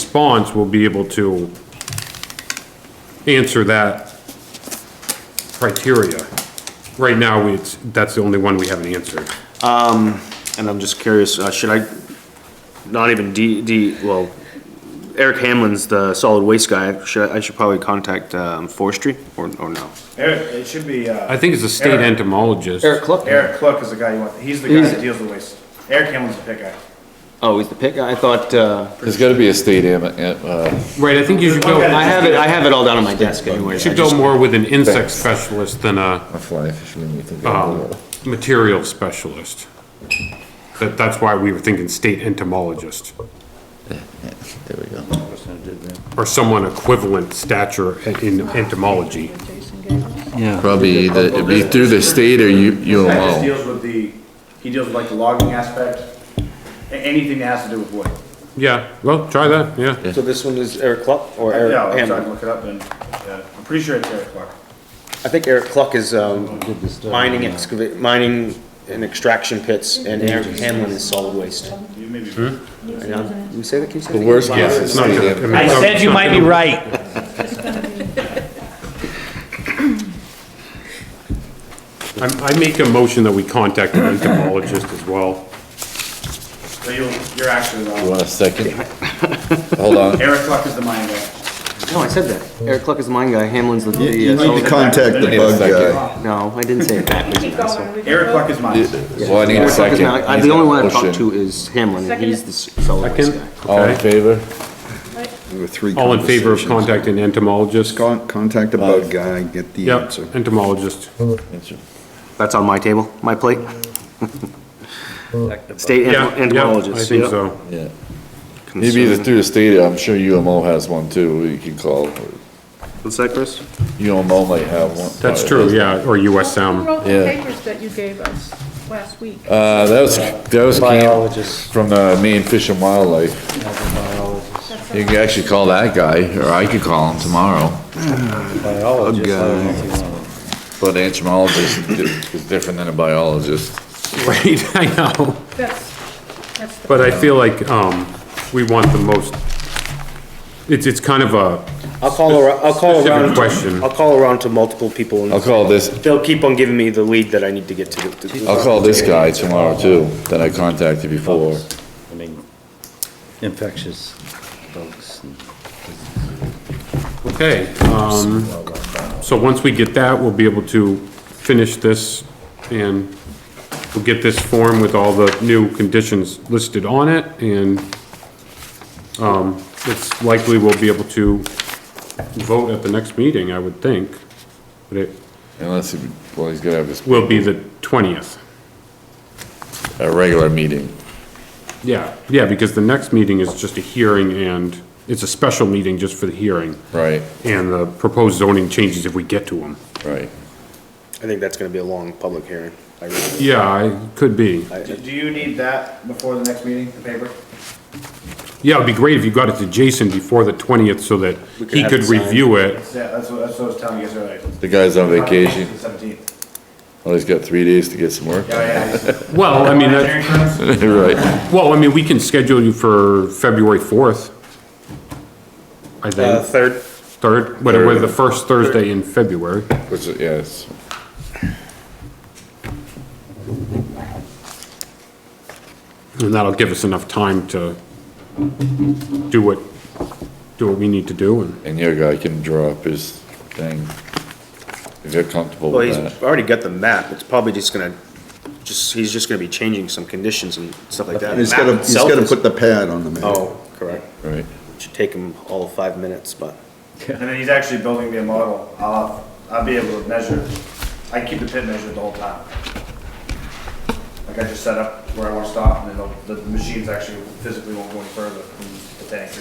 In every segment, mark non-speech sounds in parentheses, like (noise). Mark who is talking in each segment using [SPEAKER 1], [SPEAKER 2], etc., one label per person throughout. [SPEAKER 1] response will be able to answer that criteria. Right now, we- it's, that's the only one we haven't answered.
[SPEAKER 2] And I'm just curious, uh, should I, not even D, D, well, Eric Hamlin's the solid waste guy, should, I I should probably contact, um, forestry, or, or no?
[SPEAKER 3] Eric, it should be, uh.
[SPEAKER 1] I think it's a state
[SPEAKER 3] Eric-
[SPEAKER 1] entomologist.
[SPEAKER 2] Cluck.
[SPEAKER 3] Eric Cluck is the guy you want, he's the guy that deals with waste. Eric Hamlin's the pit guy.
[SPEAKER 2] Oh, he's the pick, I thought, uh,
[SPEAKER 4] There's gotta be a state, am- uh,
[SPEAKER 1] Right, I think you should go,
[SPEAKER 2] I have it, I have it all down on my desk anyway.
[SPEAKER 1] should go more with an insect specialist than a
[SPEAKER 4] a fly fisherman, you think.
[SPEAKER 1] um, material specialist. That, that's why we were thinking state entomologist,
[SPEAKER 4] There we go.
[SPEAKER 1] or someone equivalent stature in entomology.
[SPEAKER 4] Probably either, it'd be through the state or U,
[SPEAKER 3] This guy just
[SPEAKER 4] UMO.
[SPEAKER 3] deals with the, he deals with like the logging aspect, a- anything that has to do with wood.
[SPEAKER 1] Yeah, well, try that, yeah.
[SPEAKER 2] So this one is Eric Cluck, or Eric
[SPEAKER 3] Yeah, I'm trying to
[SPEAKER 2] Hamlin?
[SPEAKER 3] look it up and, uh, I'm pretty sure it's Eric Cluck.
[SPEAKER 2] I think Eric Cluck is, um, mining excavate, mining and extraction pits, and Eric Hamlin is solid waste.
[SPEAKER 3] You may be-
[SPEAKER 2] And I'm- Did you say that, can you say that?
[SPEAKER 4] The worst
[SPEAKER 1] Yeah,
[SPEAKER 4] case is
[SPEAKER 1] it's not gonna-
[SPEAKER 4] state.
[SPEAKER 1] mean,
[SPEAKER 5] I
[SPEAKER 1] it's not-
[SPEAKER 5] said you might be right.
[SPEAKER 1] I, I make a motion that we contact an entomologist as well.
[SPEAKER 3] So you'll, you're actually
[SPEAKER 4] You
[SPEAKER 3] wrong.
[SPEAKER 4] want a second? Hold on.
[SPEAKER 3] Eric Cluck is the mine guy.
[SPEAKER 2] No, I said that. Eric Cluck is the mine guy, Hamlin's the. the, uh,
[SPEAKER 6] You need
[SPEAKER 2] solid-
[SPEAKER 6] to contact the
[SPEAKER 4] Need a
[SPEAKER 6] bug
[SPEAKER 4] second.
[SPEAKER 6] guy.
[SPEAKER 2] No, I didn't say it backwards.
[SPEAKER 3] Eric Cluck is mine.
[SPEAKER 4] Well, I need a
[SPEAKER 2] Eric Cluck is
[SPEAKER 4] second.
[SPEAKER 2] not- I- uh,
[SPEAKER 4] He's
[SPEAKER 2] The
[SPEAKER 4] got
[SPEAKER 2] only
[SPEAKER 4] a
[SPEAKER 2] one I've
[SPEAKER 4] motion.
[SPEAKER 2] talked to is Hamlin, and he's the s- solid waste
[SPEAKER 1] Second,
[SPEAKER 2] guy.
[SPEAKER 4] All in
[SPEAKER 1] okay.
[SPEAKER 4] favor?
[SPEAKER 6] There were three
[SPEAKER 1] All in favor of
[SPEAKER 6] conversations.
[SPEAKER 1] contacting an entomologist?
[SPEAKER 6] Con- Contact the bug guy, get the
[SPEAKER 1] Yep,
[SPEAKER 6] answer.
[SPEAKER 1] entomologist.
[SPEAKER 2] That's on my table, my plate. State
[SPEAKER 1] Yeah,
[SPEAKER 2] entom-
[SPEAKER 1] yeah, I
[SPEAKER 2] entomologist.
[SPEAKER 1] think
[SPEAKER 2] yep.
[SPEAKER 1] so.
[SPEAKER 4] Yeah. Maybe either through the state, I'm sure UMO has one too, you can call.
[SPEAKER 2] What's that, Chris?
[SPEAKER 4] UMO might have one.
[SPEAKER 1] That's true, yeah, or US Sound.
[SPEAKER 7] Who wrote the
[SPEAKER 4] Yeah.
[SPEAKER 7] papers that you gave us last week?
[SPEAKER 4] Uh, that was, that was came from the Maine Fish and Wildlife. You can actually call that guy, or I could call him tomorrow.
[SPEAKER 6] Bug guy.
[SPEAKER 4] But an entomologist is different than a biologist.
[SPEAKER 1] (laughs) Right, I know.
[SPEAKER 7] That's, that's the.
[SPEAKER 1] But I feel like, um, we want the most, it's, it's kind of a,
[SPEAKER 2] I'll call around, I'll call
[SPEAKER 1] Specific
[SPEAKER 2] around,
[SPEAKER 1] question.
[SPEAKER 2] to- I'll call around to multiple people,
[SPEAKER 4] I'll
[SPEAKER 2] and
[SPEAKER 4] call this,
[SPEAKER 2] they'll keep on giving me the lead that I need to get to. to-
[SPEAKER 4] I'll call this guy tomorrow too, that I contacted before.
[SPEAKER 8] I mean, infectious bugs. and-
[SPEAKER 1] okay, um, so once we get that, we'll be able to finish this and we'll get this form with all the new conditions listed on it and, um, it's likely we'll be able to vote at the next meeting, I would think. But it
[SPEAKER 4] Unless, he- well, he's gonna have his,
[SPEAKER 1] will be the twentieth.
[SPEAKER 4] a regular meeting.
[SPEAKER 1] Yeah, yeah, because the next meeting is just a hearing and it's a special meeting just for the hearing
[SPEAKER 4] Right,
[SPEAKER 1] and the proposed zoning changes if we get to them.
[SPEAKER 4] right.
[SPEAKER 2] I think that's gonna be a long public hearing. I really-
[SPEAKER 1] Yeah, it could be.
[SPEAKER 3] Do do you need that before the next meeting, the paper?
[SPEAKER 1] Yeah, it'd be great if you got it to Jason before the twentieth so that he
[SPEAKER 2] have
[SPEAKER 1] could
[SPEAKER 2] it signed.
[SPEAKER 1] review it.
[SPEAKER 3] That's, that's what that's what I was telling you guys earlier.
[SPEAKER 4] The guy's on vacation,
[SPEAKER 3] Seventeenth.
[SPEAKER 4] oh, he's got three days to get some work.
[SPEAKER 3] Yeah, yeah.
[SPEAKER 1] Well, I mean, that,
[SPEAKER 4] (laughs) Right,
[SPEAKER 1] well, I mean, we can schedule you for February fourth. I
[SPEAKER 2] Uh,
[SPEAKER 1] think,
[SPEAKER 2] third,
[SPEAKER 1] third, whatever, the first Thursday in February.
[SPEAKER 4] which, is- yes.
[SPEAKER 1] And that'll give us enough time to do what, do what we need to do and.
[SPEAKER 4] And your guy can draw up his thing, if you're comfortable
[SPEAKER 2] well, he's
[SPEAKER 4] with that.
[SPEAKER 2] already got the map, it's probably just gonna, just, he's just gonna be changing some conditions and stuff like that.
[SPEAKER 6] He's
[SPEAKER 2] The map
[SPEAKER 6] gotta, he's
[SPEAKER 2] itself
[SPEAKER 6] gotta
[SPEAKER 2] is-
[SPEAKER 6] put the pad on the map.
[SPEAKER 2] Oh, correct.
[SPEAKER 4] Right,
[SPEAKER 2] Should take him all of five minutes, but.
[SPEAKER 3] And then he's actually building me a model. I'll, I'll be able to measure, I keep the pit measured the whole time. Like I just set up where I want to stop and then it'll- the machines actually physically won't go any further from the tank.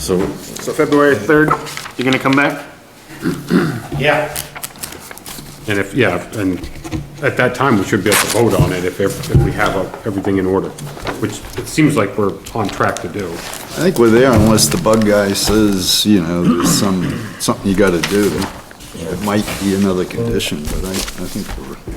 [SPEAKER 4] so
[SPEAKER 2] So February third, you're gonna come back?
[SPEAKER 3] Yeah,
[SPEAKER 1] And if, yeah, and at that time, we should be able to vote on it if, if we have uh, everything in order, which it seems like we're on track to do.
[SPEAKER 6] I think we're there unless the bug guy says, you know, there's some, something you gotta do. It might be another condition, but I, I think we're.